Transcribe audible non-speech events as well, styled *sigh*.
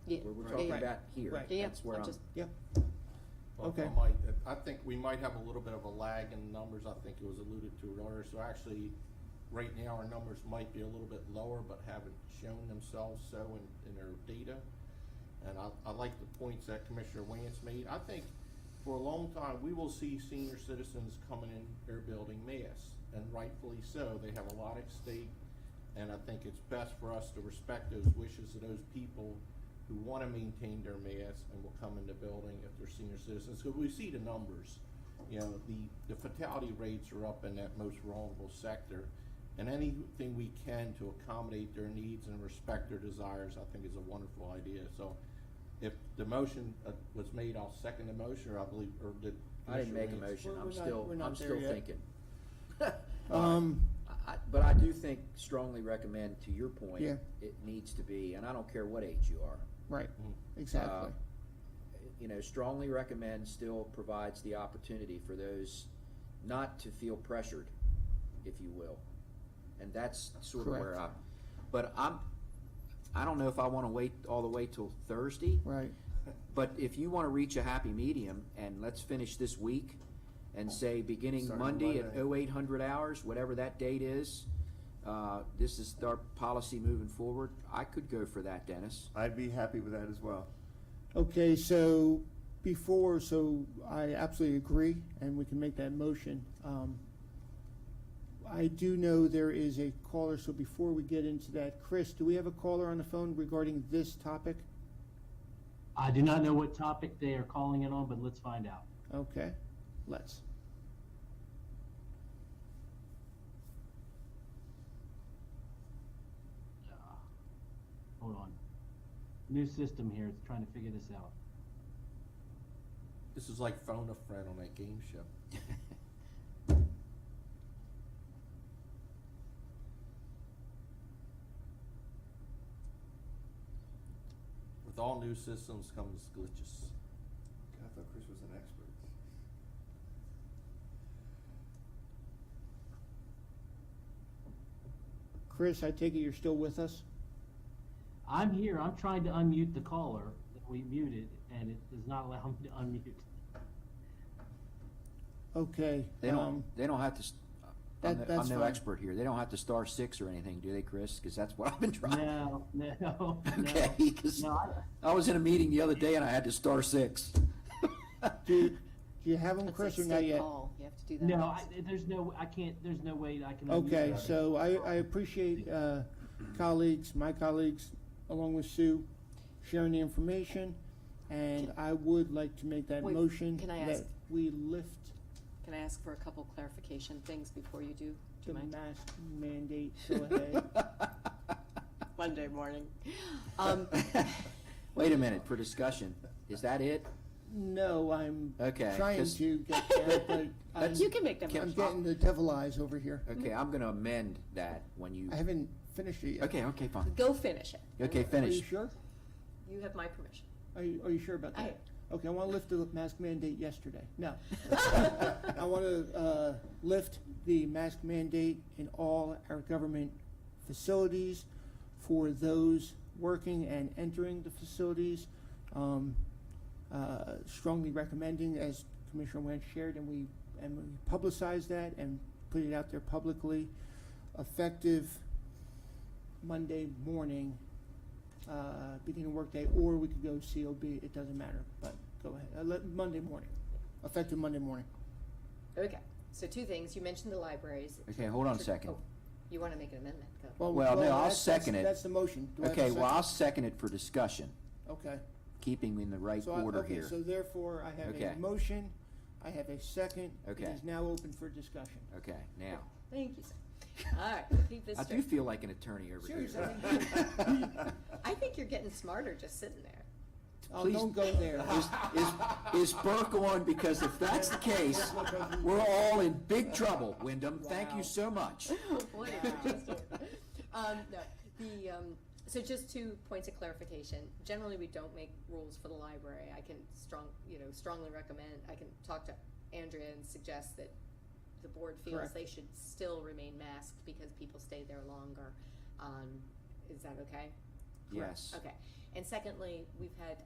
came Right, back here, right. Yeah, that's where I'll I'm, just- yeah, Well, Okay. I might, I think we might have a little bit of a lag in numbers, I think it was alluded to earlier, so actually, right now, our numbers might be a little bit lower, but haven't shown themselves so in, in our data. And I, I like the points that Commissioner Wance made, I think for a long time, we will see senior citizens coming in their building mass, and rightfully so, they have a lot at stake. And I think it's best for us to respect those wishes of those people who wanna maintain their mass and will come in the building if they're senior citizens, cause we see the numbers. You know, the, the fatality rates are up in that most vulnerable sector. And anything we can to accommodate their needs and respect their desires, I think is a wonderful idea, so. If the motion uh, was made, I'll second the motion, or I believe, or did. I didn't make a Commissioner Reins- motion, We're- I'm still, we're not- we're not I'm there still yet. thinking. *laughs* Um, I, I- but I do think, strongly recommend, to your point, Yeah. it needs to be, and I don't care what age you are. right, Mhm. exactly. uh, You know, strongly recommend still provides the opportunity for those not to feel pressured, if you will. And that's sort of where I, Correct. but I'm, I don't know if I wanna wait all the way till Thursday. Right, *laughs* But if you want to reach a happy medium, and let's finish this week, and say, beginning Starting Monday at Monday. 0800 hours, whatever that date is, uh, this is our policy moving forward, I could go for that, Dennis. *laughs* I'd be happy with that as well. okay, so before, so I absolutely agree, and we can make that motion. Um, I do know there is a caller, so before we get into that, Chris, do we have a caller on the phone regarding this topic? I do not know what topic they are calling in on, but let's find out. Okay, let's. Uh, Hold on. New system here, it's trying to figure this out. This is like phone a friend on that game show. *laughs* With all new systems comes glitches. God, I thought Chris was an expert. Chris, I take it you're still with us? I'm here, I'm trying to unmute the caller that we muted, and it does not allow me to unmute. Okay. They um, don't, they don't have to, s- I'm That- no- I'm that's no fine. expert here, they don't have to star six or anything, do they, Chris? Because that's what I've been trying. No, no, *laughs* no. *laughs* Okay, 'cause No, I- I was in a meeting the other day and I had to star six. Do, do you have them, That's Chris, or like not state yet? call. You have to do that. No, I, there's no, I can't, there's no way I can. unmute Okay, that. so I, I appreciate, uh, colleagues, my colleagues, along with Sue, sharing the information. And Can- I would like to make that Wait, motion can I that ask- we lift Can I ask for a couple clarification things before you do? Do you the mind? mask *laughs* mandate, go ahead. Monday morning. *gasps* *laughs* Um, *laughs* Wait a minute, for discussion, is that it? No, I'm Okay, trying 'cause- to *laughs* get that, but I'm, you can make that I'm motion. getting the devil eyes over here. Okay, I'm gonna amend that when you, I haven't finished it yet. okay, okay, fine. Go finish it. Okay, Are you finish. sure? You have my *laughs* permission. *laughs* Are you, are you sure about I that? Okay, I wanna lift the mask mandate yesterday. No. I want to uh, lift the mask mandate in all our government facilities for those working and entering the facilities. Um, uh, strongly recommending, as Commissioner Wentz shared, and we and we publicize that and put it out there publicly, effective Monday morning, uh, beginning of workday, or we could go COB. It doesn't matter, but go ahead. Uh, let, Monday morning, effective Monday morning. Okay, so two things, you mentioned the libraries. Okay, hold on a second. Oh, You wanna make an amendment, go. Well, no, I'll that's- second it. that's- That's the motion. Do I have a Okay, well, I'll second? second it for discussion, Okay. keeping in the right So I- order okay, here. So therefore, I have a Okay. motion, I have a second. It Okay. is now open for discussion. Okay, now, Thank *laughs* you, sir. All right, we'll keep this I do straight. feel like an attorney over here. Seriously, I think- *laughs* I think you're getting smarter just sitting there. Oh, Please- don't go *laughs* there. *laughs* Is, is, is Burke on? Because if that's the case, we're all in big trouble, Wyndham. Thank Wow. you so much. Boy, did you just do it. *laughs* Um, no, the, um, so just two points of clarification. Generally, we don't make rules for the library. I can strong, you know, strongly recommend, I can talk to Andrea and suggest that the board feels Correct. they should still remain masked because people stay there longer. Um, is that okay? Yes. Okay, and secondly, we've had